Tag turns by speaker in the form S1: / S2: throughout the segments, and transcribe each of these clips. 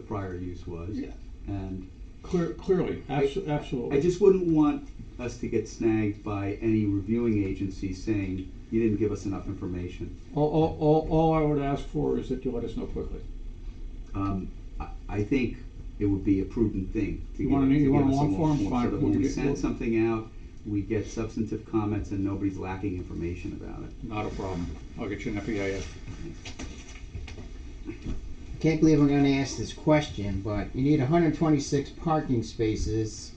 S1: prior use was.
S2: Yeah.
S1: And
S2: Clear, clearly, abso- absolutely.
S1: I just wouldn't want us to get snagged by any reviewing agency saying, you didn't give us enough information.
S2: All, all, all, all I would ask for is that you let us know quickly.
S1: Um, I, I think it would be a prudent thing to
S2: You
S1: give,
S2: want an-
S1: to
S2: you want
S1: give
S2: a
S1: us a
S2: long
S1: long
S2: form?
S1: form, so
S2: Fine,
S1: that
S2: we
S1: when
S2: can
S1: we
S2: get- we'll-
S1: send something out, we get substantive comments and nobody's lacking information about it.
S2: Not a problem. I'll get you an FEIS.
S3: I can't believe I'm gonna ask this question, but you need hundred twenty-six parking spaces.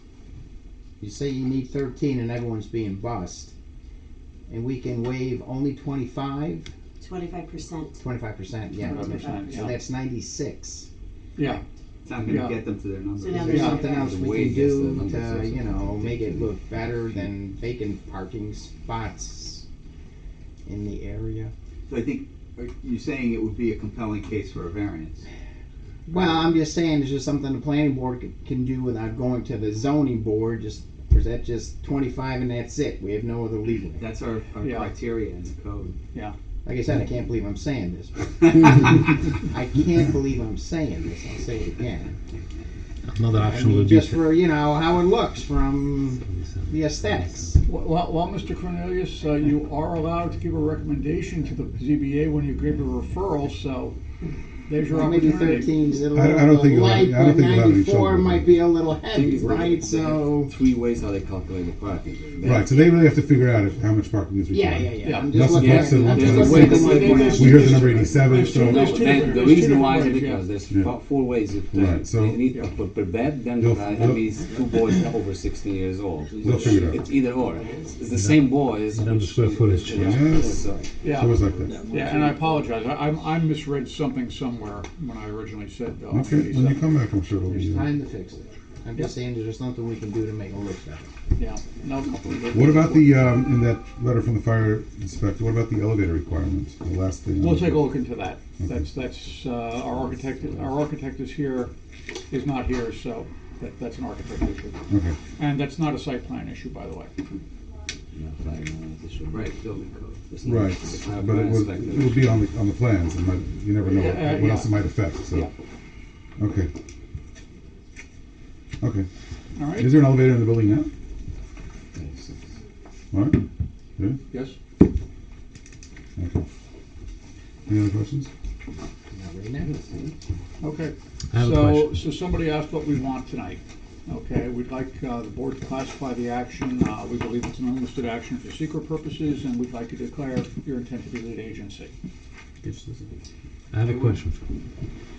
S3: You say you need thirteen and everyone's being bussed. And we can waive only 25
S4: Twenty-five percent.
S3: percent, yeah.
S2: 25%,
S3: So
S2: yeah.
S3: that's ninety-six.
S2: Yeah,
S1: It's not gonna
S2: Yeah.
S1: get them to their numbers.
S4: So now
S3: Is
S4: there's
S3: there something
S4: Yeah.
S3: else we can do to, you know, make it look better than vacant parking spots in the area?
S1: So I think, are you saying it would be a compelling case for a variance?
S3: Well, I'm just saying, it's just something the planning board c- can do without going to the zoning board, just, or is that just twenty-five and that's it? We have no other leeway.
S1: That's our, our
S2: Yeah.
S1: criteria in the code.
S3: Like I said, I can't believe I'm saying this. I
S1: I
S3: can't believe I'm saying this, I'll say it again.
S5: Another
S3: I
S5: option
S3: mean,
S5: would be
S3: just for, you know, how it looks from the aesthetics.
S2: well, well, well, Mr. Cornelius, uh, you are allowed to give a recommendation to the ZBA when you give a referral, so there's your
S3: Well, maybe
S2: opportunity.
S3: thirteen's a
S5: I don't
S3: little
S5: think
S3: bit
S5: you'll have-
S3: light,
S5: I
S3: but
S5: don't think you'll have any trouble
S3: ninety-four
S5: with
S3: might
S5: it.
S3: be a little heavy, right? So,
S6: three ways how they calculate the parking. They-
S5: Right, so they really have to figure out if, how much parking is
S3: yeah,
S5: required.
S3: yeah, yeah.
S2: Yeah.
S3: I'm just
S5: That's-
S3: looking
S5: that's
S3: at,
S5: the
S3: I'm just
S5: one
S3: looking at
S5: thing.
S3: the money
S2: There's-
S3: grant.
S5: We heard the number eighty-seven,
S2: There's two-
S5: so.
S2: there's two
S6: Then
S2: different-
S6: the
S2: there's two
S6: reason
S2: different
S6: why is
S2: ways,
S6: because
S2: yeah.
S6: there's
S5: Yeah.
S6: fo- four ways of
S5: Right,
S6: doing it.
S5: so-
S6: You need to put per bed, then
S5: They'll-
S6: guy,
S5: they'll-
S6: and these two boys are over sixteen years old.
S5: They'll figure it out.
S6: It's either or. It's the same boys.
S5: And then the
S6: which-
S5: square footage
S6: Yeah.
S5: changes.
S6: So-
S2: Yeah.
S5: So it's like that.
S2: Yeah, and I apologize. I, I'm- I misread something somewhere when I originally said. uh,
S5: Okay, when you
S2: 37.
S5: come back, I'm sure it'll be
S3: There's
S5: there.
S3: time to fix it. I'm just saying, there's just something we can do to make it look better.
S2: Yeah, no. completely.
S5: What about the, um, in that letter from the fire inspector, what about the elevator requirements, the last thing? on
S2: We'll
S5: the-
S2: take a look into that. That's, that's, uh, our architect, our architect is here, is not here, so that, that's an architect issue.
S5: Okay,
S2: And that's not a site plan issue, by the way.
S6: No, fine, no, it's a short-
S1: Right, building code.
S6: it's not-
S5: right,
S6: it's not
S5: but it
S6: a
S5: was,
S6: plan
S5: it
S6: spec.
S5: will be on the, on the plans, and might- you never know
S2: Yeah, uh,
S5: what- what else
S2: yeah.
S5: it might affect,
S2: Yeah.
S5: so. Okay. Okay,
S2: All right?
S5: is there an elevator in the building now? All right,
S2: Yes?
S5: okay. Any other questions?
S3: Not right now.
S2: Okay.
S7: I have a
S2: So, so
S7: question.
S2: somebody asked what we want tonight. Okay, we'd like, uh, the board to classify the action. Uh, we believe it's an unlisted action for secret purposes, and we'd like to declare your intent to be lead agency.
S7: I have a question.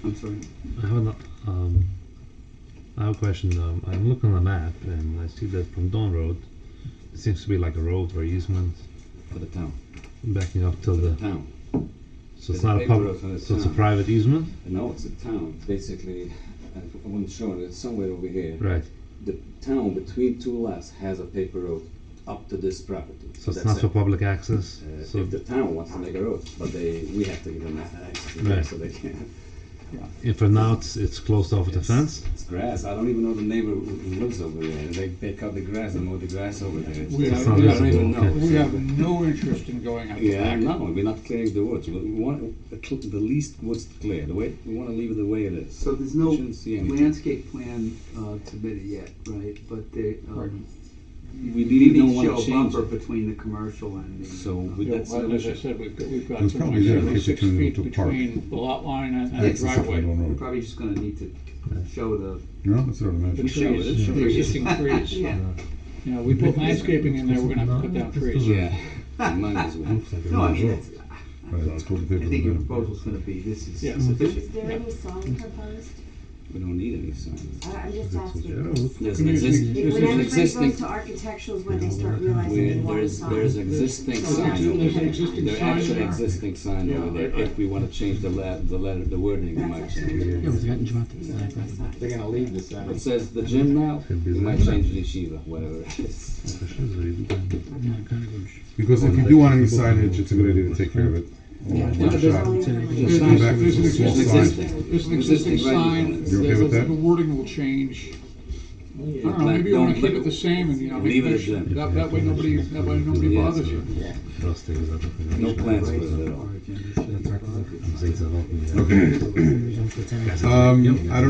S1: I'm sorry.
S7: I have an, um, I have a question. Um, I'm looking on the map and I see that from Don Road, it seems to be like a road or easement
S6: For the town,
S7: backing up till the.
S6: town.
S7: So it's
S6: the
S7: not a
S6: big
S7: public.
S6: road for the
S7: So it's a
S6: town.
S7: private easement,
S6: No, it's a town, basically, uh, I wasn't showing it, somewhere over here.
S7: right?
S6: The town between two lots has a paper road up to this property.
S7: So it's
S6: That's
S7: not
S6: it.
S7: for public access.
S6: Uh,
S7: so
S6: if the town wants to make a road, but they, we have to give them access to
S7: Right.
S6: it, so they can.
S7: if for now it's, it's closed off with a
S6: It's-
S7: fence.
S6: It's grass, I don't even know the neighbor who who lives over there, they, they cut the grass and mow the grass over there. It's-
S2: We
S6: it's-
S2: have-
S6: I
S7: we
S6: don't
S7: have-
S6: even know.
S2: We have no interest in going out
S6: Yeah,
S2: back.
S6: no, we're not clearing the woods, we want, the cl- the least woods to clear, the way, we wanna leave it the way it is.
S1: So there's no
S6: Shouldn't see anything.
S1: landscape plan uh, submitted yet, right? But they, um,
S6: We
S1: you
S6: really
S1: need
S6: don't
S1: to show
S6: wanna
S1: a
S6: change
S1: bumper
S6: it.
S1: between the commercial and the. uh,
S6: So we-
S2: Yeah,
S6: That's
S2: well,
S6: the
S2: as I
S6: issue.
S2: said, we've got, we've got
S5: It's
S2: something
S5: probably there
S2: like
S5: in case you
S2: six
S5: turn it
S2: feet
S5: into a park.
S2: between the lot line and and the
S5: Access from
S2: driveway.
S5: Don
S1: We're
S5: Road.
S1: probably just gonna need to show the.
S5: No, that's what I'd
S2: The
S5: imagine.
S6: Sure,
S2: trees,
S6: sure.
S2: the existing trees. You
S1: Yeah.
S2: know, we put landscaping in there, we're gonna have to cut down trees.
S6: Yeah, might as well.
S5: Looks like a
S1: No, I
S5: road.
S1: mean, it's,
S5: Right, it's called the
S1: I
S5: paper
S1: think your
S5: road.
S1: proposal's gonna be, this is
S2: Yeah.
S4: Is
S1: sufficient.
S4: there any sign proposed?
S6: We don't need any signs.
S4: I- Uh, I'm just
S5: Yeah,
S4: asking.
S5: look,
S6: There's an
S2: Community-
S6: exist-
S2: Is
S4: If- When
S2: this
S4: everybody
S6: existing-
S4: goes to architecturals, when they start realizing
S6: Where
S4: they want a
S6: there's,
S4: sign.
S6: there's existing
S4: There's
S6: sign
S4: actually-
S6: over
S4: there's an
S6: there.
S2: existing
S6: There
S2: sign
S6: actually
S2: there.
S6: existing sign
S2: Yeah,
S6: over there.
S2: right, right.
S6: If we wanna change the la, the letter, the wording, we might
S4: That's
S6: change
S4: actually-
S6: it.
S7: Yeah, wir hatten schon mal-
S4: There's no sign.
S3: They're gonna leave this out.
S6: It says the gym now,
S5: Could be
S6: we might
S5: that.
S6: change the yeshiva, whatever it is.
S5: Because if you do want any signage, it's a good idea to take care of it.
S6: Yeah,
S5: One
S6: there's-
S5: shot.
S4: Only
S5: Just
S4: information.
S5: come back
S2: There's
S5: with
S2: an
S5: a small
S6: There's
S5: sign.
S6: existing.
S2: There's an existing
S6: Existing right
S2: sign,
S6: now.
S5: You okay with
S2: the
S5: that?
S2: the wording will change. I don't know,
S6: Like,
S2: maybe you wanna
S6: don't
S2: keep
S6: leave-
S2: it the same and, you know, maybe
S6: leave it
S2: that
S6: as that.
S2: should- that, that way nobody, that way nobody
S6: Yeah,
S2: bothers
S6: so-
S2: you.
S6: No plans for it at all.
S1: Our agenda should be-
S5: Okay. Um, I don't